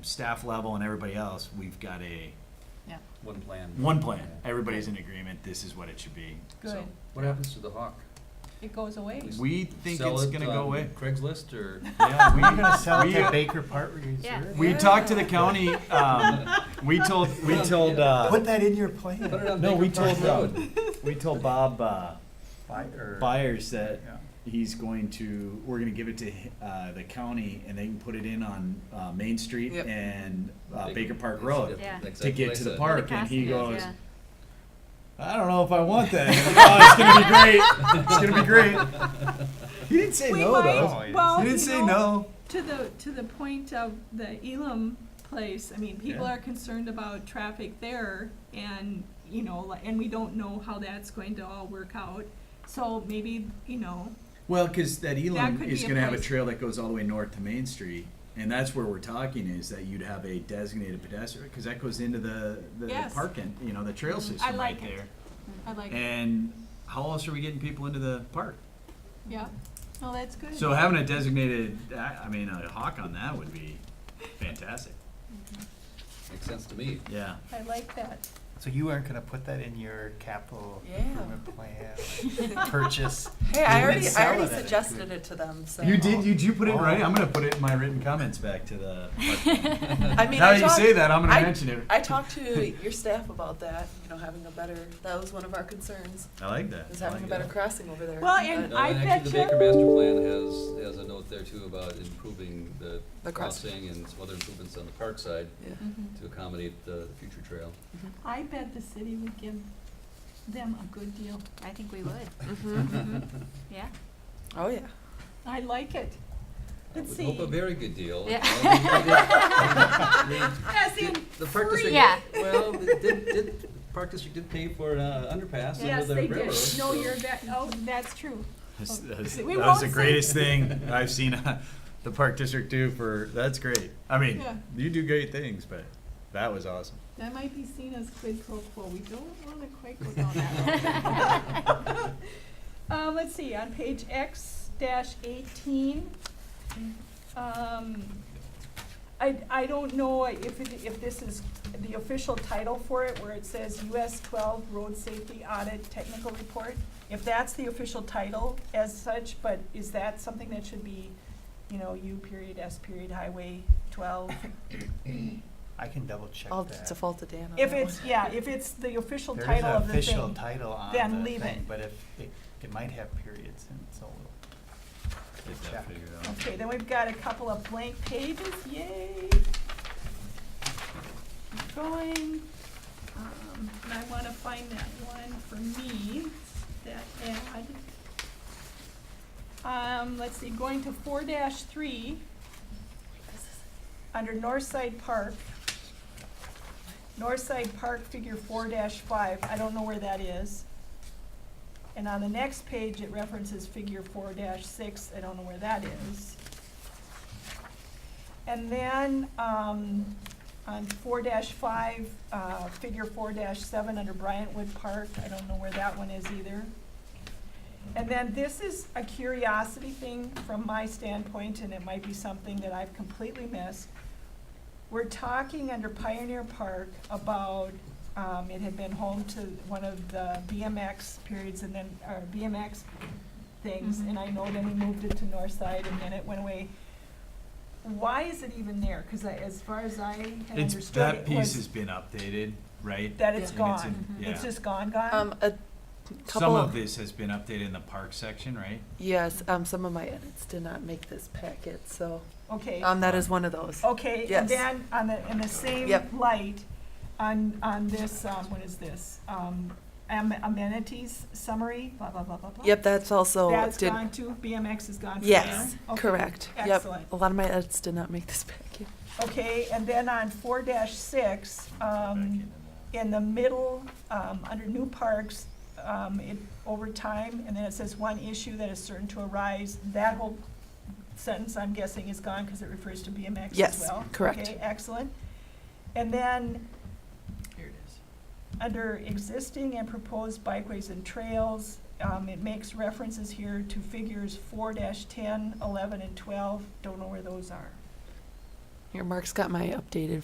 staff level and everybody else, we've got a, yeah, One plan. one plan. Yeah. Everybody's in agreement, this is what it should be. good. So What happens to the hawk? It goes away. We think Sell it's it gonna go on away. Craigslist or? Yeah, we- We're gonna sell it we- to Baker Park Yeah. Reserve. We talked to the county, um, we told, we told, Put uh, that in your Put it plan. on No, we Baker Park told them. Road. we told Bob, uh, Fire. Byers that Yeah. he's going to, we're gonna give it to, uh, the county and they can put it in on, uh, Main Street Yep. and, uh, Big- Baker Park it's- Road. yeah, Yeah. that's To exactly get what to I the said. park and he Cascades, goes, yeah. I don't know if I want that. oh, it's gonna be great. "Oh, It's gonna be great. He didn't say We no might- though. well, he didn't you say know, no. To the, to the point of the Elam place, I mean, people Yeah. are concerned about traffic there and, you know, li- and we don't know how that's going to all work out. So maybe, you know, Well, because that That Elam could is be a going to have a place. trail that goes all the way north to Main Street, and that's where we're talking is that you'd have a designated pedestrian because that goes into the the Yes. Mm-hmm. parking, you know, the trail system like right it. there. I'd like, And how else are we getting people into the park? yeah, no, that's good. So having a designated, I I mean, a hawk on that would be fantastic. Makes sense to me. Yeah. I like that. So you aren't gonna put that in your capital Yeah. improvement plan, like, purchase? Hey, I You already, would I sell already it at a suggested good- it to them, so. You did. You, you put it Oh. right. I'm going to put it in my written comments back to the. I mean, now I that you talked- say that, I'm going to I- mention it. I talked to your staff about that, you know, having a better, that was one of our concerns, I like that. is I having a like better that. crossing over there. Well, and But- No, I and bet actually, the you- Baker Master Plan has, has a note there too about improving the The crossing. crossing and some other improvements on the park side Yeah. to accommodate the the future trail. Mm-hmm. I bet the city would give them a good deal. I think we would, Mm-hmm, yeah. Oh, yeah. I like it. I Let's would hope a see. very good deal. Yeah. Yeah. Ah, As in, The park district, Yeah. well, it did, did, the park district did pay for an uh, yes, underpass under the they railroad. did. No, so- you're, that, oh, that's true. That's- that's- We that was the won't say- greatest thing I've seen uh, the Park District do for, that's great. I mean, Yeah. you do great things, but that was awesome. That might be seen as quid pro quo. We don't wanna quite go down that road. Um, let's see, on page X dash eighteen, um, I, I don't know if it, if this is the official title for it, where it says US twelve Road Safety Audit Technical Report. If that's the official title as such, but is that something that should be, you know, U period, S period, Highway twelve? I can double check I'll that. default to Dan on If that it's, one. yeah, if it's the official There is title an of the official thing. title on then the leave thing, it. but if, it, it might have periods and so. Get that Yeah. figured out. Okay, then we've got a couple of blank pages, yay. Keep Going, um, and I wanna find that one for me, that ad. Um, let's see, going to four dash three, under Northside Park. Northside Park, figure four dash five, I don't know where that is. And on the next page, it references figure four dash six, I don't know where that is. And then, um, on four dash five, uh, figure four dash seven under Bryantwood Park, I don't know where that one is either. And then this is a curiosity thing from my standpoint, and it might be something that I've completely missed. We're talking under Pioneer Park about, um, it had been home to one of the BMX periods and then, or BMX things, Mhm. and I know then we moved it to North Side and then it went away. Why is it even there? Cause I, as far as I had It's, understood, that it piece has was been updated, right? that it's Yeah. gone. in- It's yeah. just gone, gone? Um, a Some couple of of, this has been updated in the park section, right? yes, um, some of my edits did not make this packet, so, Okay. um, that is one of those. Okay, and Yes. then on the, in the same Yep. light, on, on this, um, what is this? Um, am- amenities summary, blah, blah, blah, blah, blah. Yep, that's also, That's did, gone too, BMX is gone from there? yes, Okay, correct. Yep, Excellent. a lot of my edits did not make this packet. Okay, and then on four dash six, um, in the middle, um, under new parks, um, it, over time, and then it says one issue that is certain to arise, that whole sentence, I'm guessing, is gone because it refers to BMX as Yes, well? correct. Okay, excellent. And then, Here it is. under existing and proposed bikeways and trails, um, it makes references here to figures four dash ten, eleven, and twelve, don't know where those are. Here, Mark's got my updated